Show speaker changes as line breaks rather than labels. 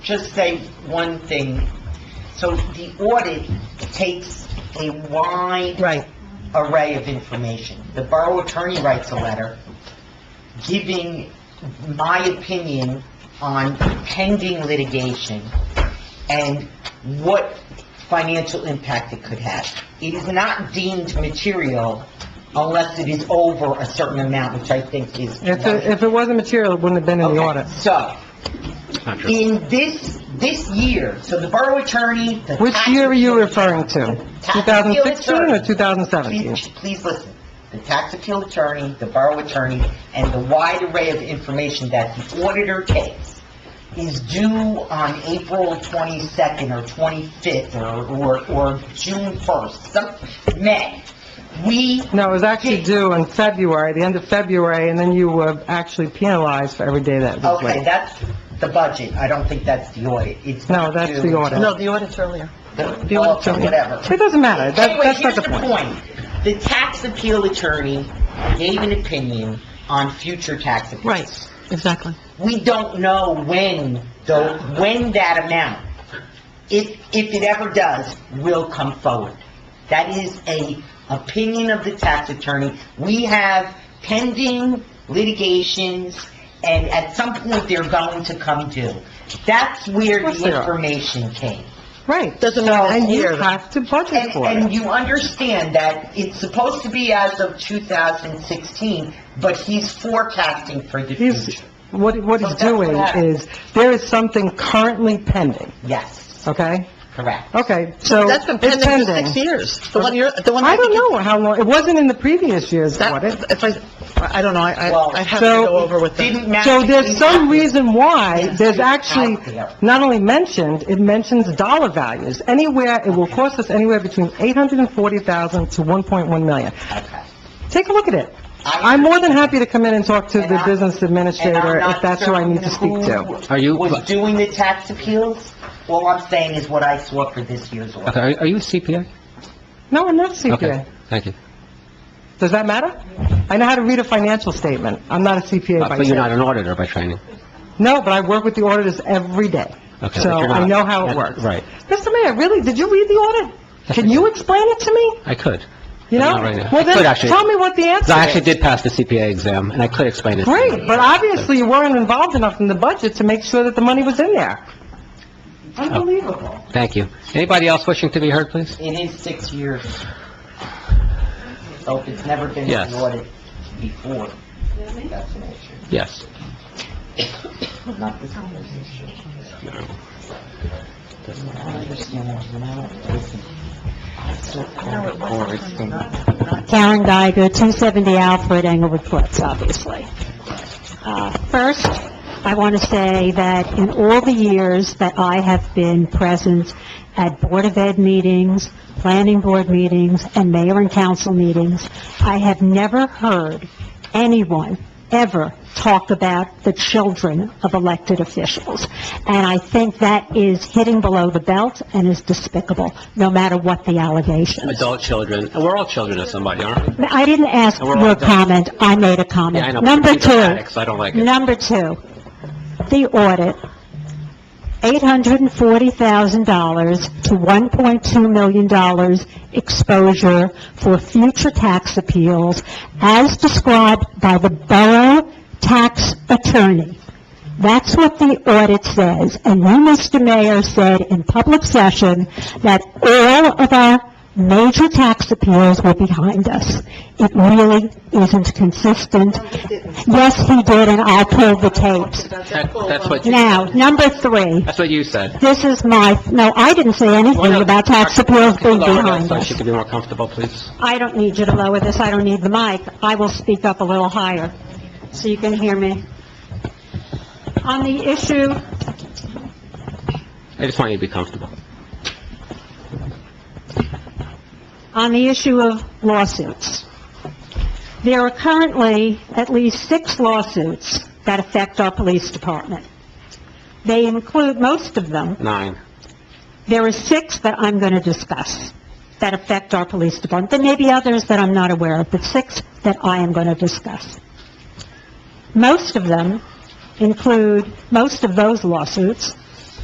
just say one thing. So the audit takes a wide
Right,
array of information. The borough attorney writes a letter giving my opinion on pending litigation and what financial impact it could have. It is not deemed material unless it is over a certain amount, which I think is...
if, it- if it wasn't material, it wouldn't have been in the
Okay,
audit.
So, in this, this year, so the borough attorney, the
Which
tax-
year are you referring to?
Tax appeal
2016 or
attorney.
2017?
Please, please listen. The tax appeal attorney, the borough attorney, and the wide array of information that the auditor takes is due on April 22nd or 25th or, or, or June 1st, some, May. We
No, it was actually due in February, the end of February, and then you were actually penalized for every day that it was
Okay,
late.
that's the budget. I don't think that's the audit. It's
No,
not
that's
due
the
until-
audit. No,
the audit's earlier.
The
The
audit,
audit's okay.
whatever.
It doesn't matter, that,
Anyway,
that's not
here's
the
the
point.
point. The tax appeal attorney gave an opinion on future tax appeals.
Right, exactly.
We don't know when, though, when that amount, if, if it ever does, will come forward. That is a opinion of the tax attorney. We have pending litigations, and at some point, they're going to come due. That's where
Of course they
the
are.
information came.
Right.
Doesn't matter what
And you
year.
have to budget
And,
for it.
and you understand that it's supposed to be as of 2016, but he's forecasting for the
He's-
future.
What, what
So
he's
that's what
doing
happened.
is, there is something currently pending,
Yes,
okay?
correct.
Okay, so
That's been
it's
pending for six years. The one you're, the one.
I don't
think you-
know how long, it wasn't in the previous year's
That,
audit.
if I, I don't know, I,
Well,
I- I'd have to
so
go over with them.
Didn't matter.
So there's some reason why
Yes,
there's
it's
actually
out there.
not only mentioned, it mentions dollar values. Anywhere, it will cost us anywhere between 840,000 to 1.1 million.
Okay.
Take a look at it.
I-
I'm more than happy to come in and talk to
And
the
I-
business
and I'm
administrator
not
if that's who I need to speak
certain
to.
who
Are you-
Was doing the tax appeals? All I'm saying is what I saw for this year's
Okay,
order.
are are you a CPA?
No, I'm not
Okay,
CPA.
thank you.
Does that matter? I know how to read a financial statement. I'm not a
Uh,
CPA by
Uh, But you're not
trade.
an auditor by training.
No, but I work with the auditors every day.
Okay,
So
but you're
I
not-
know how it
Yeah,
works.
Right,
Mr. Mayor, really, did you read the audit? Can you explain it to me?
I could.
You know?
Not right now.
Well,
I could
then,
actually.
tell me what the answer
'Cause I actually
is.
did pass the CPA exam, and I could explain it. to you.
Great, but obviously you weren't involved enough in the budget to make sure that the money was in there.
Oh.
Unbelievable.
Thank you. Anybody else wishing to be heard, please?
It is six years. So if it's never been
Yes.
audited before, that's an issue.
Yes.
Not this one, this issue. I don't understand, when I don't listen. I still call it Boris thing.
Karen Geiger, 270 Alfred Englewood Cliffs, obviously. Uh, First, I want to say that in all the years that I have been present at Board of Ed meetings, planning board meetings, and mayor and council meetings, I have never heard anyone ever talk about the children of elected officials. And I think that is hitting below the belt and is despicable, no matter what the allegations.
Adult children, and we're all children of somebody, aren't we?
I didn't ask
And we're all
your
done.
comment, I made a
Yeah, I know,
comment.
but
Number
people are addicts,
two,
I don't like it.
number two, the audit, $840,000 to $1.2 million exposure for future tax appeals as described by the borough tax attorney. That's what the audit says, and you, Mr. Mayor, said in public session that all of our major tax appeals were behind us. It really isn't consistent. Yes, he did, and I pulled the tapes.
That- That's what, you-
Now, number three,
that's what you said.
this is my, no, I didn't say anything about tax appeals being
Lower that
behind
so
us.
she could be more comfortable, please.
I don't need you to lower this, I don't need the mic. I will speak up a little higher, so you can hear me. On the issue
I just want you to be comfortable.
on the issue of lawsuits. There are currently at least six lawsuits that affect our police department. They include, most of them,
Nine.
there are six that I'm going to discuss that affect our police department. There may be others that I'm not aware of, but six that I am going to discuss. Most of them include, most of those lawsuits